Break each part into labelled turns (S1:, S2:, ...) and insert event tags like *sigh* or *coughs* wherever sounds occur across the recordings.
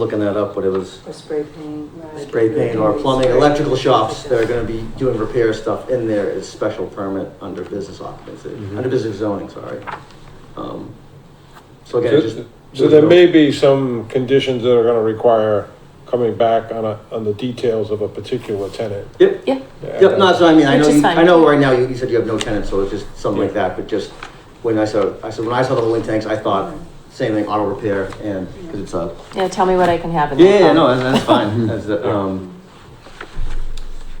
S1: looking that up, but it was
S2: Or spray paint. right.
S1: spray paint or plumbing, electrical shops that are gonna be doing repair stuff in there is special permit under business occupancy,
S3: Mm-hmm.
S4: Mhm.
S1: under business zoning, sorry. Um, So again, it just.
S3: So so there may be some conditions that are gonna require coming back on a, on the details of a particular tenant.
S1: Yep.
S5: Yeah.
S1: Yep, no, so I mean, I
S5: Which
S1: know,
S5: is
S1: you-
S5: fine.
S1: I know right now you, you said you have no tenants, so it's just something like
S3: Yeah.
S1: that, but just when I saw, I said, when I saw the link tanks, I thought same thing, auto repair and, cause it's a.
S5: Yeah, tell me what I can have in
S1: Yeah,
S5: that.
S1: yeah,
S5: phone.
S1: no, that's, that's fine,
S3: *laughs*
S1: that's, the, um,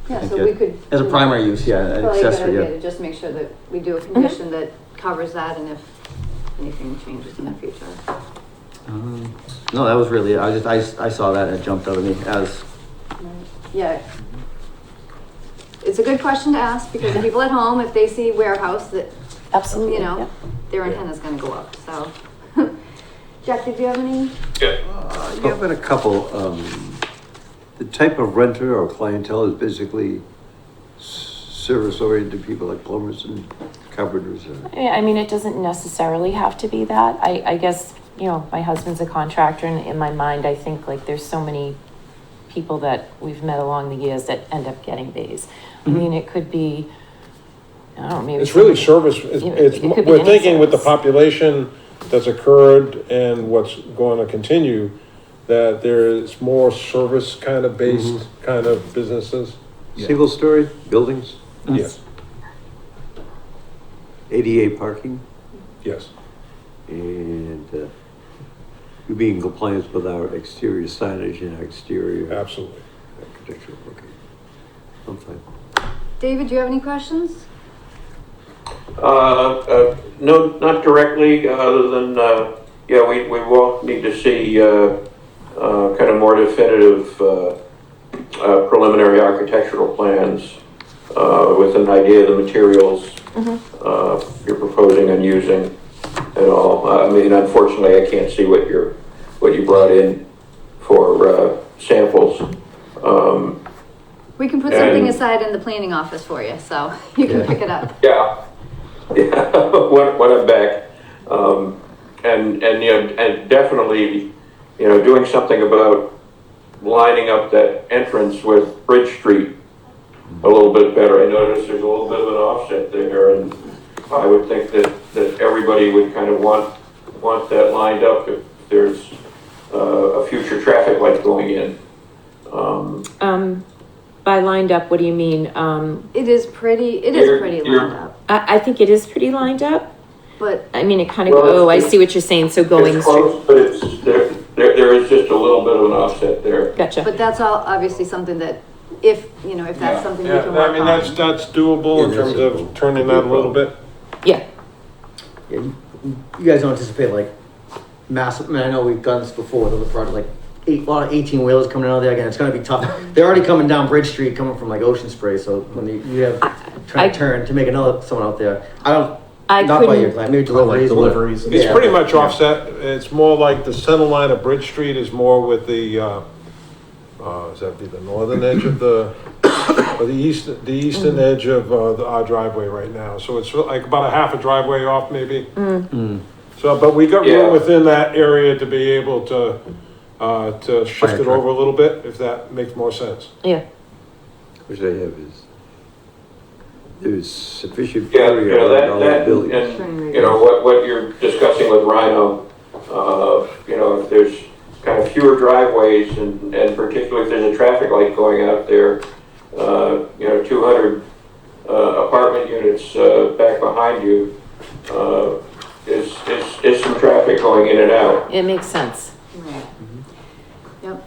S6: Yeah, so we could.
S1: as a primary use, yeah, an
S6: Probably a good
S1: accessory,
S6: idea
S1: yeah.
S6: to just make sure that we do a condition that covers that and if anything changes in the future.
S1: Um, No, that was really, it. I was just, I, s- I saw that and it jumped out at me as,
S6: Right. Yeah. It's a good question to ask because the people at home, if they see warehouse, that,
S5: *laughs* Absolutely.
S6: you know,
S5: Oh, yeah.
S6: their antenna's gonna go up, so. *laughs* Jack, did you have any?
S4: Uh, Yeah, but a couple, um, the type of renter or clientele is basically s- service-oriented people like plumbers and carpenters and.
S5: Yeah, I mean, it doesn't necessarily have to be that. I, I guess, you know, my husband's a contractor and in my mind, I think like there's so many people that we've met along the years that end up getting these. I mean, it could be, I don't know, maybe.
S3: It's really
S5: somebody-
S3: service, it's,
S5: Yeah,
S3: it's-
S5: it could be
S3: we're
S5: any
S3: thinking with the
S5: service.
S3: population that's occurred and what's going to continue, that there's more service kind of based,
S4: Mm-hmm.
S3: kind of businesses.
S4: Single-story buildings,
S3: Yes,
S4: ADA parking,
S3: yes.
S4: and, uh, you be in compliance with our exterior signage and our exterior
S3: Absolutely.
S4: architectural, okay. I'm fine.
S6: David, do you have any questions?
S7: Uh, uh, No, not directly, uh, other than, uh, yeah, we, we will need to see uh, uh, kind of more definitive uh, uh, preliminary architectural plans uh, with an idea of the materials uh, you're proposing and using at all. Uh, I mean, unfortunately, I can't see what you're, what you brought in for uh, samples. Um,
S6: We can put something
S7: And-
S6: aside in the planning office for you, so *laughs* you can pick it up.
S7: Yeah, *laughs* yeah. when, when I'm back, um, and and you know, and definitely, you know, doing something about lining up that entrance with Bridge Street a little bit better. I noticed there's a little bit of an offset there, and I would think that that everybody would kind of want want that lined up if there's uh, a future traffic light going in. Um,
S5: Um, by lined up, what do you mean? Um,
S6: It is pretty, it is
S7: You're-
S6: pretty
S7: you're-
S6: lined up,
S5: I, I think it is pretty lined up.
S6: but
S5: I mean, it kind of,
S7: Well,
S5: oh, I
S7: it's-
S5: see what you're saying. So going
S7: it's
S5: straight.
S7: close, but it's there, there. There is just a little bit of an offset there.
S5: Gotcha.
S6: But that's all obviously something that if, you know, if that's something we
S3: Yeah,
S6: can
S3: I mean,
S6: work
S3: that's,
S6: on.
S3: that's doable in
S4: Yeah,
S3: terms of
S4: that's doable.
S3: turning that a little bit.
S5: yeah.
S1: Yeah, you you guys don't anticipate like massive, I mean, I know we've done this before with other projects, like eight, a lot of eighteen wheelers coming out of there again, it's gonna be tough. They're already coming down Bridge Street, coming from like Ocean Spray, so when you, you have,
S5: I-
S1: trying to turn to make another, someone out there, I don't,
S5: I
S1: not by your
S5: couldn't.
S1: client, maybe
S8: Or like
S1: deliveries. but-
S8: deliveries and
S1: Yeah.
S3: It's pretty much offset, it's more like the center line of Bridge Street is more with the, uh, uh, is that be the northern edge of the, *coughs* or the east, the eastern
S1: Mm.
S3: edge of, uh, the- our driveway right now, so it's like about a half a driveway off maybe.
S1: Mm.
S3: Mm. So, but we got
S7: Yeah.
S3: room within that area to be able to, uh, to shift it
S1: truck.
S3: over a little bit, if that makes more sense.
S5: Yeah.
S4: Which I have is, there's sufficient
S7: Yeah, you
S4: area
S7: know,
S4: around
S7: that,
S4: all
S7: that,
S4: the
S7: and,
S4: buildings.
S7: and, you know, what, what you're discussing with Rhino, uh, you know, if there's kind of fewer driveways and, and particularly if there's a traffic light going out there, uh, you know, two hundred, uh, apartment units, uh, back behind you, uh, is, is, is some traffic going in and out.
S5: It makes sense.
S6: Right.
S3: Mm-hmm.
S6: Yep.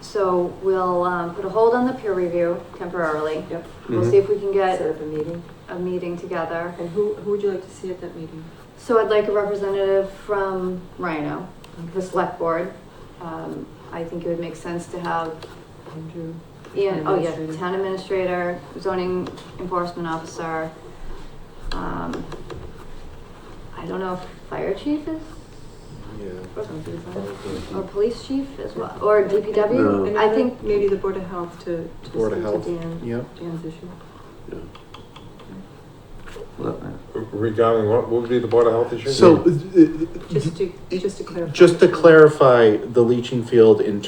S6: So we'll, um, put a hold on the peer review temporarily.
S2: Yep.
S3: Mm-hmm.
S6: We'll see if we can
S2: Set
S6: get
S2: up a meeting.
S6: a meeting together.
S2: And who, who would you like to see at that meeting?
S6: So I'd like a representative from Rhino, the select board. Um, I think it would make sense to have
S2: Andrew?
S6: Ian, oh yeah,
S2: Administrator.
S6: town administrator, zoning enforcement officer. Um, I don't know if fire chief is,
S2: Sounds good, is that?
S6: or police chief as well, or DPW,
S2: And
S6: I
S2: then
S6: think.
S2: Maybe the Board of Health to, to
S8: Board of
S2: speak
S8: Health,
S2: to Dan,
S8: Yep.
S2: Dan's issue.
S3: Regarding what, what would be the Board of Health issue?
S8: So, uh, E
S2: Just to, just to clarify.
S8: just to clarify, the leaching field in